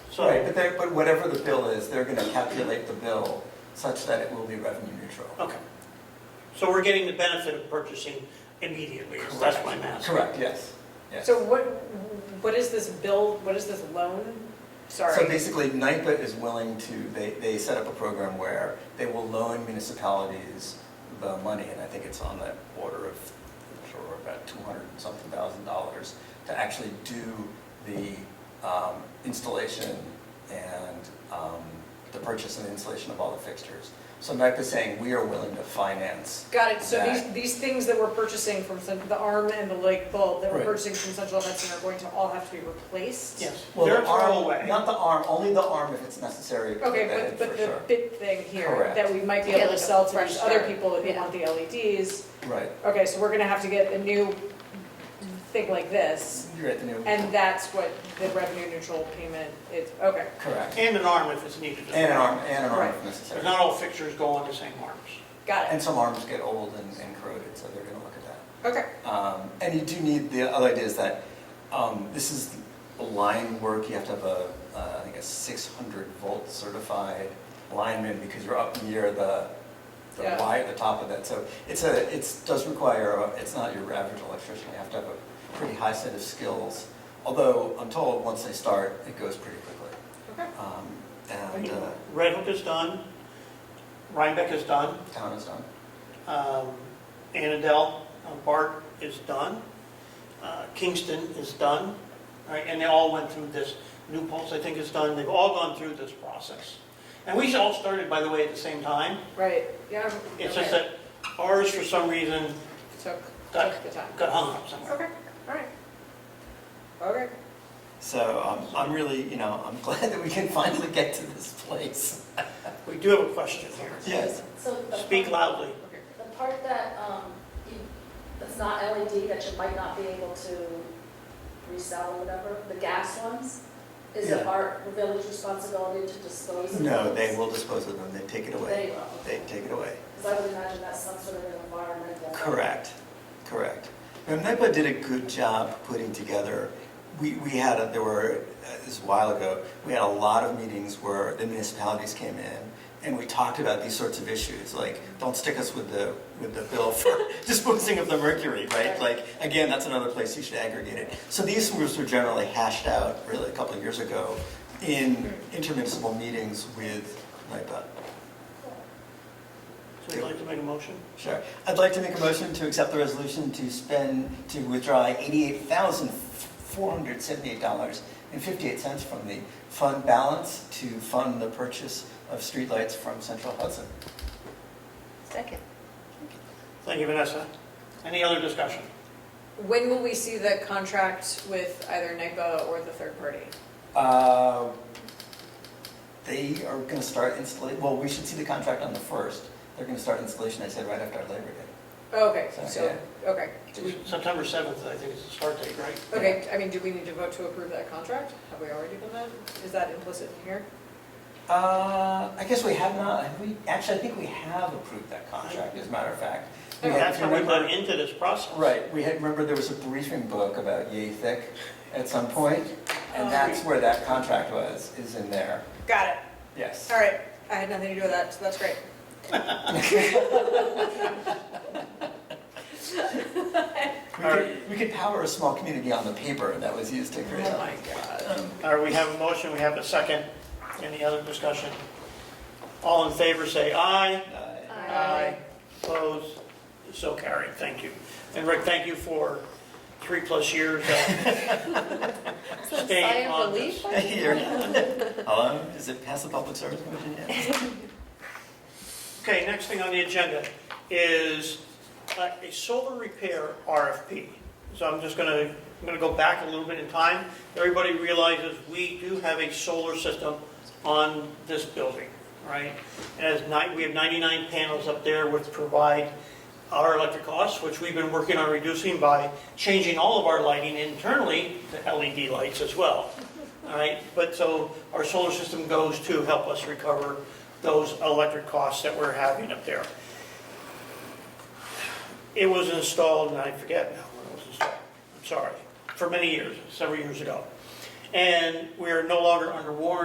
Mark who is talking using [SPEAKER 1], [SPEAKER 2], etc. [SPEAKER 1] So,
[SPEAKER 2] Right, but they're, but whatever the bill is, they're gonna calculate the bill such that it will be revenue neutral.
[SPEAKER 1] okay. So we're getting the benefit of purchasing immediately, is that's my math.
[SPEAKER 2] Correct, yes, yes.
[SPEAKER 3] So what, what is this bill, what is this loan?
[SPEAKER 2] So
[SPEAKER 3] Sorry.
[SPEAKER 2] basically, NIPA is willing to, they, they set up a program where they will loan municipalities the money, and I think it's on the order of, I'm sure, about two hundred and something thousand dollars to actually do the um, installation and um, the purchase and installation of all the fixtures. So NIPA is saying, we are willing to finance.
[SPEAKER 3] Got it, so these,
[SPEAKER 2] that.
[SPEAKER 3] these things that we're purchasing from, Cen- the arm and the leg bolt that we're
[SPEAKER 2] Right.
[SPEAKER 3] purchasing from Central Hudson are going to all have to be replaced?
[SPEAKER 1] Yes,
[SPEAKER 2] Well,
[SPEAKER 1] they're
[SPEAKER 2] the arm-
[SPEAKER 1] throwaway.
[SPEAKER 2] Not the arm, only the arm if it's necessary. to
[SPEAKER 3] Okay,
[SPEAKER 2] prevent it,
[SPEAKER 3] but, but
[SPEAKER 2] for
[SPEAKER 3] the
[SPEAKER 2] sure.
[SPEAKER 3] bit thing here,
[SPEAKER 2] Correct.
[SPEAKER 3] that we might be
[SPEAKER 4] Yeah,
[SPEAKER 3] able to
[SPEAKER 4] like a
[SPEAKER 3] sell to
[SPEAKER 4] fresh
[SPEAKER 3] these other
[SPEAKER 4] start.
[SPEAKER 3] people if they
[SPEAKER 4] Yeah.
[SPEAKER 3] want the LEDs.
[SPEAKER 2] Right,
[SPEAKER 3] Okay, so we're gonna have to get a new thing like this,
[SPEAKER 2] you're at the new,
[SPEAKER 3] and that's what the revenue neutral payment is, okay.
[SPEAKER 2] correct.
[SPEAKER 1] And an arm if it's needed. as
[SPEAKER 2] And an
[SPEAKER 1] well.
[SPEAKER 2] arm, and an arm if
[SPEAKER 3] Right.
[SPEAKER 1] But
[SPEAKER 2] necessary.
[SPEAKER 1] not all fixtures go on the same arms.
[SPEAKER 3] Got
[SPEAKER 2] And
[SPEAKER 3] it.
[SPEAKER 2] some arms get old and and corroded, so they're gonna look at that.
[SPEAKER 3] Okay.
[SPEAKER 2] Um, And you do need, the other idea is that um, this is line work, you have to have a, uh, I think a 600 volt certified lineman because you're up near the, the
[SPEAKER 3] Yeah.
[SPEAKER 2] wire, the top of that. So it's a, it does require, a- it's not your average electrician, you have to have a pretty high set of skills. Although I'm told, once they start, it goes pretty quickly.
[SPEAKER 3] Okay.
[SPEAKER 2] Um, And uh,
[SPEAKER 1] Red Hook is done, Rhinebeck is done,
[SPEAKER 2] town is done.
[SPEAKER 1] um, Annandale, uh, Bart is done, uh, Kingston is done, right? And they all went through this, New Paltz, I think, is done, they've all gone through this process. And we all started, by the way, at the same time.
[SPEAKER 3] Right, yeah.
[SPEAKER 1] It's just that ours, for some reason,
[SPEAKER 3] Took,
[SPEAKER 1] Got-
[SPEAKER 3] took the time.
[SPEAKER 1] got hung up somewhere.
[SPEAKER 3] Okay, all right. Okay,
[SPEAKER 2] So um, I'm really, you know, I'm glad that we can finally get to this place.
[SPEAKER 1] We do have a question here.
[SPEAKER 2] Yes.
[SPEAKER 4] So the
[SPEAKER 1] Speak
[SPEAKER 4] part-
[SPEAKER 1] loudly.
[SPEAKER 3] okay.
[SPEAKER 4] The part that, um, you, that's not LED, that you might not be able to resell or whatever, the gas ones, is it
[SPEAKER 2] Yeah.
[SPEAKER 4] our village responsibility to dispose of those?
[SPEAKER 2] No, they will dispose of them, they take it
[SPEAKER 4] They
[SPEAKER 2] away.
[SPEAKER 4] will.
[SPEAKER 2] They take it away.
[SPEAKER 4] Because I would imagine that's some sort of an environmental.
[SPEAKER 2] Correct, correct. Now, NIPA did a good job putting together, we, we had, a- there were, uh, this was a while ago, we had a lot of meetings where the municipalities came in and we talked about these sorts of issues, like, don't stick us with the, with the bill for disposing of the mercury, right? Like, again, that's another place you should aggregate it. So these groups were generally hashed out, really, a couple of years ago in intermunicipal meetings with NIPA.
[SPEAKER 1] So you'd like to make a motion?
[SPEAKER 2] Sure. I'd like to make a motion to accept the resolution to spend, to withdraw $88,478.58 from the fund balance to fund the purchase of streetlights from Central Hudson.
[SPEAKER 4] Second.
[SPEAKER 1] Thank you, Vanessa. Any other discussion?
[SPEAKER 3] When will we see the contract with either NIPA or the third party?
[SPEAKER 2] Uh, They are going to start installation, well, we should see the contract on the 1st. They're going to start installation, I said, right after our Labor Day.
[SPEAKER 3] Oh, Okay,
[SPEAKER 2] So,
[SPEAKER 3] so, okay. Do we,
[SPEAKER 1] September 7th, I think is the start date, right?
[SPEAKER 3] okay, I mean, do we need to vote to approve that contract? Have we already done that? Is that implicit in here?
[SPEAKER 2] Uh, I guess we have not, have we, actually, I think we have approved that contract, as a matter of fact. We had-
[SPEAKER 1] That's how we got into this process.
[SPEAKER 2] Right, we had, remember there was a briefing book about yay thick at some point, and that's where that contract was, is in there.
[SPEAKER 3] Um, Got it.
[SPEAKER 2] Yes.
[SPEAKER 3] All right, I had nothing to do with that, so that's great.
[SPEAKER 2] We could, we could power a small community on the paper, and that was used to create.
[SPEAKER 3] God.
[SPEAKER 1] All right, we have a motion, we have a second. Any other discussion? All in favor, say aye.
[SPEAKER 2] Uh,
[SPEAKER 4] Aye.
[SPEAKER 1] Opposed? So carried, thank you. And Rick, thank you for three-plus years of staying on this.
[SPEAKER 2] Here. Hello, is it past the public service commission yet?
[SPEAKER 1] Okay, next thing on the agenda is uh, a solar repair RFP. So I'm just gonna, I'm gonna go back a little bit in time. Everybody realizes we do have a solar system on this building, right? And as ni- we have 99 panels up there which provide our electric costs, which we've been working on reducing by changing all of our lighting internally to LED lights as well. All right, but so our solar system goes to help us recover those electric costs that we're having up there. It was installed, and I forget now when it was installed, I'm sorry, for many years, several years ago. And we are no longer under warranty